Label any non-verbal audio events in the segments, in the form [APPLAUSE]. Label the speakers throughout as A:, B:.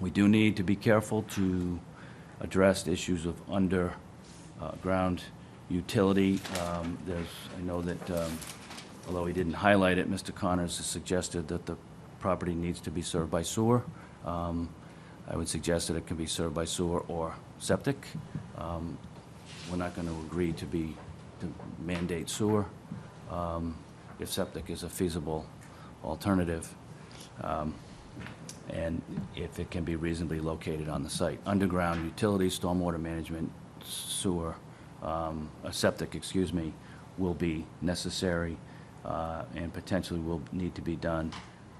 A: We do need to be careful to address the issues of underground utility. Um, There's, I know that, um, although he didn't highlight it, Mr. Connors has suggested that the property needs to be served by sewer. Um, I would suggest that it can be served by sewer or septic. Um, We're not going to agree to be, to mandate sewer um, if septic is a feasible alternative and if it can be reasonably located on the site. Underground utilities, stormwater management, sewer, um, uh, septic, excuse me, will be necessary uh, and potentially will need to be done,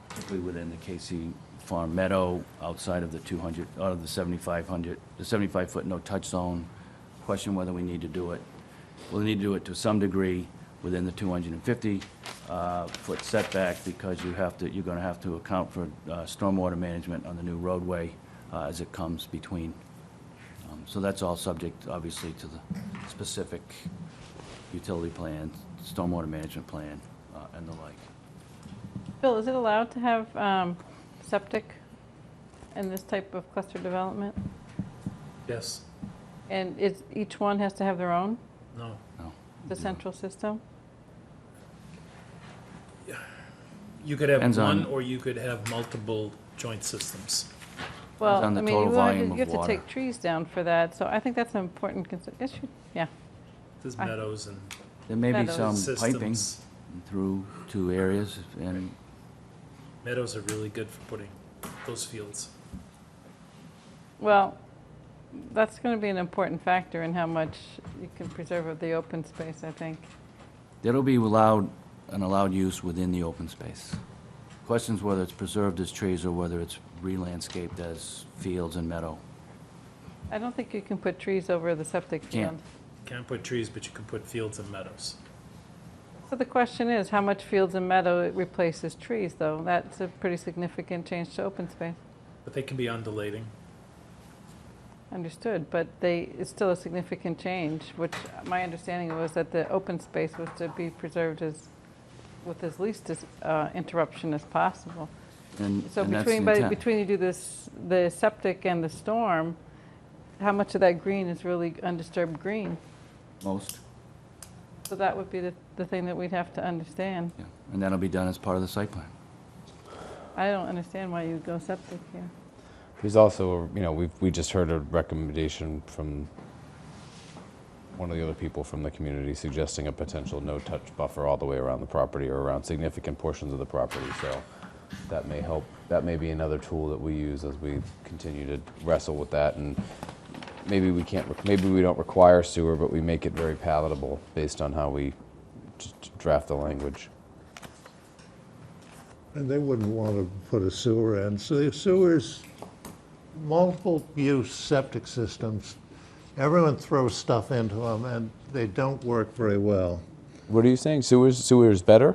A: particularly within the Casey Farm Meadow, outside of the 200, out of the 7,500, the 75-foot no-touch zone. Question whether we need to do it. We'll need to do it to some degree within the 250-foot uh, setback because you have to, you're going to have to account for uh, stormwater management on the new roadway uh, as it comes between. Um, So that's all subject, obviously, to the specific utility plan, stormwater management plan, uh, and the like.
B: Bill, is it allowed to have um, septic in this type of cluster development?
C: Yes,
B: And is, each one has to have their own,
C: no.
A: No?
B: the central system?
C: You could have
A: Depends on-
C: one, or you could have multiple joint systems.
B: Well, I
A: on the
B: mean,
A: total
B: you wanna
A: volume
B: do-
A: of
B: You have to
A: water.
B: take trees down for that, so I think that's an important consider, issue, yeah.
C: There's
B: I-
C: meadows and
A: There may be some
B: Meadows.
A: Um, piping
C: systems.
A: through two areas, and
C: Meadows are really good for putting those fields.
B: Well, that's going to be an important factor in how much you can preserve of the open space, I think.
A: That'll be allowed, an allowed use within the open space. Questions whether it's preserved as trees or whether it's re-landscaped as fields and meadow.
B: I don't think you can put trees over the septic
A: Can't.
B: field.
C: Can't put trees, but you can put fields and meadows.
B: So the question is, how much fields and meadow it replaces trees, though? That's a pretty significant change to open space.
C: But they can be undulating.
B: Understood, but they, it's still a significant change, which my understanding was that the open space was to be preserved as, with as least as, uh, interruption as possible.
A: And
B: So
A: and that's the
B: between, but
A: intent.
B: between you do this, the septic and the storm, how much of that green is really undisturbed green?
A: Most,
B: So that would be the, the thing that we'd have to understand.
A: yeah. And that'll be done as part of the site plan.
B: I don't understand why you would go septic here.
D: There's also, you know, we've, we just heard a recommendation from one of the other people from the community suggesting a potential no-touch buffer all the way around the property or around significant portions of the property. So that may help, that may be another tool that we use as we continue to wrestle with that. And maybe we can't, re- maybe we don't require sewer, but we make it very palatable based on how we d- d- draft the language.
E: And they wouldn't want to put a sewer in. So the sewers, multiple-use septic systems, everyone throws stuff into them, and they don't work very well.
D: What are you saying? Sewers, sewer is better?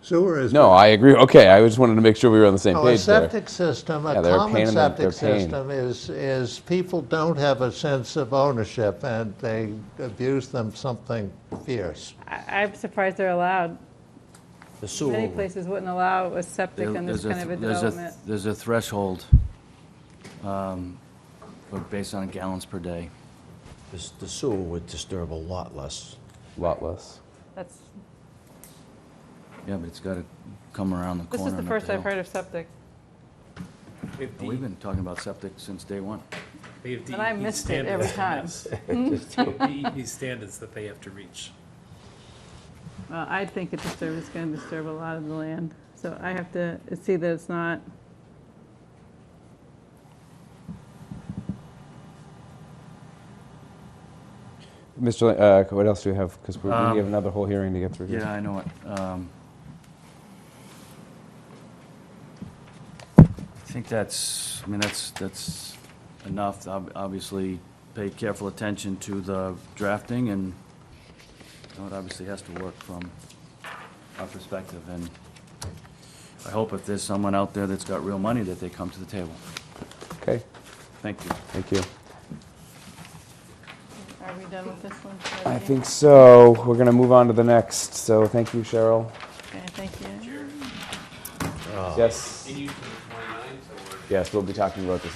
E: Sewer is...
D: No, I agree. Okay, I just wanted to make sure we were on the same
E: No,
D: page there.
E: A septic system, a
D: Yeah, they're a pain
E: common
D: in the-
E: septic
D: they're a pain.
E: system is, is people don't have a sense of ownership, and they abuse them something fierce.
B: I, I'm surprised they're allowed.
F: The sewer.
B: Many places wouldn't allow a septic in this
A: There-
B: kind of a
A: there's
B: development.
A: There's a threshold, um, but based on gallons per day.
F: The the sewer would disturb a lot less.
D: Lot less.
B: That's,
A: Yeah, but it's got to come around the
B: this
A: corner.
B: is the
A: and up
B: first I've
A: hill.
B: heard of septic,
C: If
A: We've
C: the-
A: been talking about septic since day one.
C: they have
B: And I
C: DEP
B: missed it every
C: standards
B: [LAUGHS]
C: on this. They have DEP standards that they have to reach.
B: well, I think it disturbs, it's gonna disturb a lot of the land, so I have to see that it's not,
D: Mr. Lin- Uh, what else do we have? Because we, we have another whole hearing to get through. here.
A: Yeah, I know it. Um, I think that's, I mean, that's, that's enough. Ob- Obviously, pay careful attention to the drafting, and you know, it obviously has to work from our perspective. And I hope if there's someone out there that's got real money, that they come to the table.
D: Okay.
A: Thank you.
D: Thank you.
B: are we done with this one?
D: I think so. We're gonna move on to the next. So thank you, Cheryl.
B: Okay, thank you.
D: yes. Yes, we'll be talking about this